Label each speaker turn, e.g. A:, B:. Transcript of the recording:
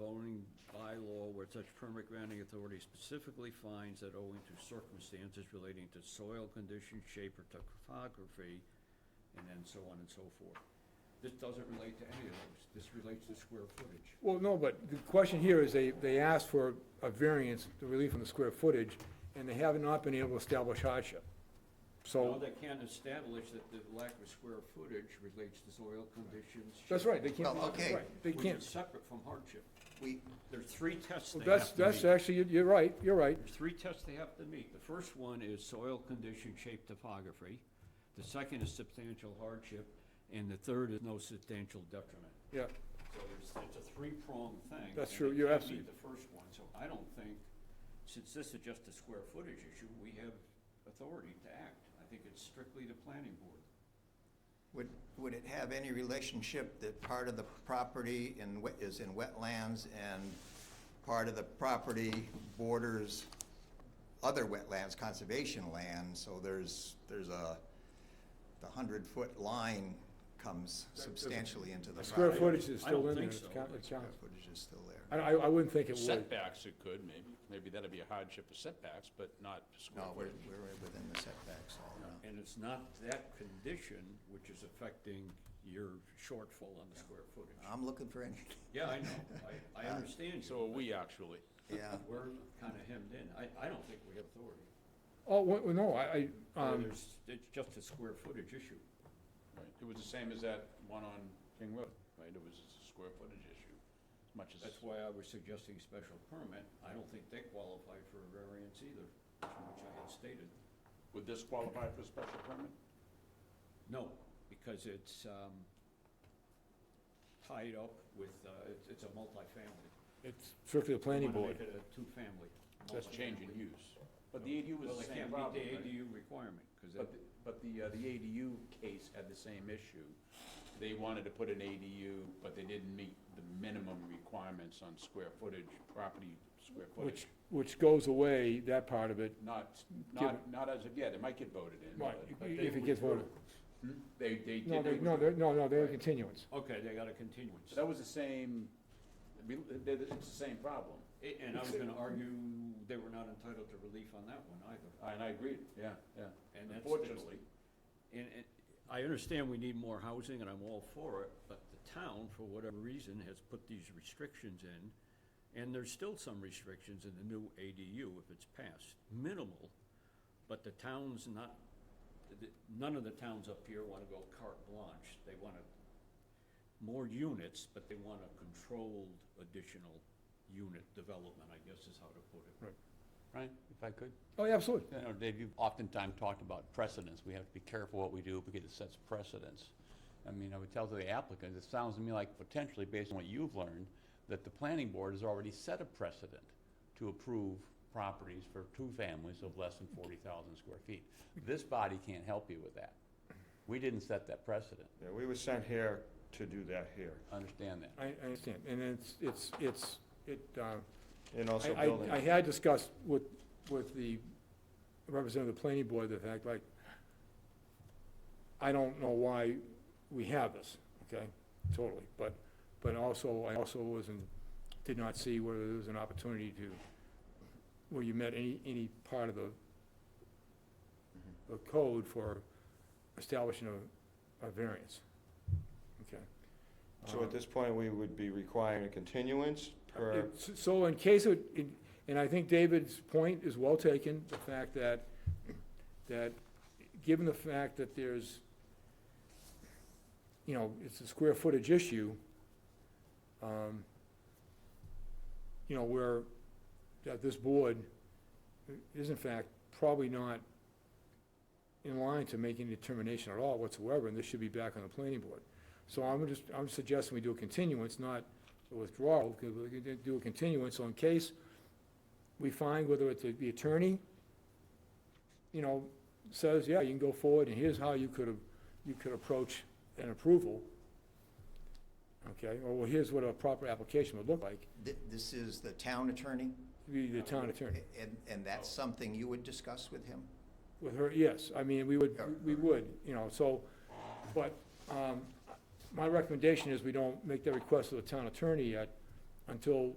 A: zoning bylaw where such permit granting authority specifically finds that owing to circumstances relating to soil condition, shape, or topography, and then so on and so forth. This doesn't relate to any of those. This relates to square footage.
B: Well, no, but the question here is they, they asked for a variance, the relief on the square footage, and they have not been able to establish hardship.
A: Now,
B: So,
A: they can't establish that the lack of square footage relates to soil conditions.
B: that's
A: shape,
B: right, they can't,
C: Well, okay.
B: right, they
A: Which is
B: can't.
A: separate from hardship.
C: We,
A: There's three tests
B: Well,
A: they
B: that's,
A: have to
B: that's
A: meet.
B: actually, you're- you're right, you're right.
A: There's three tests they have to meet. The first one is soil condition, shape, topography. The second is substantial hardship, and the third is no substantial detriment.
B: Yeah,
A: So there's, it's a three-pronged thing.
B: That's
A: and
B: true.
A: they
B: You're
A: can't meet
B: absolutely-
A: The first one, so I don't think, since this is just a square footage issue, we have authority to act. I think it's strictly the planning board.
C: would, would it have any relationship that part of the property in, wet- is in wetlands and part of the property borders other wetlands, conservation land, so there's, there's a, the hundred-foot line comes substantially into the
B: square
C: property.
B: footage is
A: I
B: still
A: don't
B: in there,
A: think
B: it's
A: so.
B: count, it
C: Square
B: counts.
C: footage is still there.
B: I, I I wouldn't think it would.
D: Setbacks, it could, maybe. Maybe that'd be a hardship of setbacks, but not square
C: No, we're,
D: footage.
C: we're within the setbacks all around.
A: And it's not that condition which is affecting your shortfall on the square footage.
C: I'm looking for any,
A: Yeah, I know. I, I understand you.
D: So are we, actually.
C: yeah.
A: Uh, We're kind of hemmed in. I, I don't think we have authority.
B: Oh, well, well, no, I, I,
A: Or
B: um,
A: There's, it's just a square footage issue.
D: Right. It was the same as that one on King Road, right? It was a square footage issue, as much as,
A: That's why I was suggesting special permit. I don't think they qualify for a variance either, which I had stated.
D: would this qualify for a special permit?
A: No, because it's, um, tied up with, uh, it's, it's a multifamily.
B: it's strictly the
A: They
B: planning
A: wanna
B: board.
A: make it a two-family.
D: That's change in
A: multifamily.
D: use. But the ADU was
A: Well,
D: the
A: they
D: same
A: can't
D: problem,
A: meet the
D: right?
A: ADU requirement, because
D: But, the- but the, uh, the ADU case had the same issue. They wanted to put an ADU, but they didn't meet the minimum requirements on square footage, property square
B: Which,
D: footage.
B: which goes away, that part of it,
D: Not, not, not as of yet, it might get voted in.
B: Right,
D: but-
B: if-
D: but they
B: if it gets
D: withdrew.
B: voted.
D: Hmm? They, they did.
B: No,
D: they
B: they, no,
D: withdrew.
B: they're, no, no, they're
D: Right.
B: continuance.
A: okay, they got a continuance.
D: So that was the same, we- they- they- it's the same problem,
A: A- And I was gonna argue they were not entitled to relief on that one either.
D: and I agree, yeah, yeah.
A: And that's-
D: Unfortunately,
A: And, and I understand we need more housing and I'm all for it, but the town, for whatever reason, has put these restrictions in. And there's still some restrictions in the new ADU if it's passed, minimal, but the town's not, th- none of the towns up here wanna go carte blanche. They wanna more units, but they want a controlled additional unit development, I guess is how to put it.
E: Brian, if I could?
B: Oh, yeah, absolutely.
E: You know, Dave, you've oftentimes talked about precedents. We have to be careful what we do because it sets precedents. I mean, I would tell the applicant, it sounds to me like potentially, based on what you've learned, that the planning board has already set a precedent to approve properties for two families of less than forty thousand square feet. This body can't help you with that. We didn't set that precedent.
F: Yeah, we were sent here to do that here,
E: Understand that.
B: I, I understand, and it's, it's, it's, it, uh,
F: and also
B: I-
F: building.
B: I, I had discussed with, with the representative of the planning board, the fact, like, I don't know why we have this, okay, totally, but, but also, I also wasn't, did not see whether there was an opportunity to, where you met any, any part of the, the code for establishing a, a variance, okay? Um,
F: So at this point, we would be requiring a continuance
D: uh,
F: per,
B: It's- So in case, it- in- and I think David's point is well taken, the fact that, that, given the fact that there's, you know, it's a square footage issue, um, you know, where, that this board is in fact probably not in line to make any determination at all whatsoever, and this should be back on the planning board. So I'm just, I'm suggesting we do a continuance, not a withdrawal, because we can do a continuance, so in case we find whether it's the attorney, you know, says, yeah, you can go forward, and here's how you could, have- you could approach an approval, okay, or well, here's what a proper application would look like,
C: Th- This is the town attorney,
B: be the town attorney.
C: and, and that's something you would discuss with him?
B: With her, yes, I mean, we would,
C: Yeah.
B: we would, you know, so, but, um, my recommendation is we don't make that request to the town attorney yet until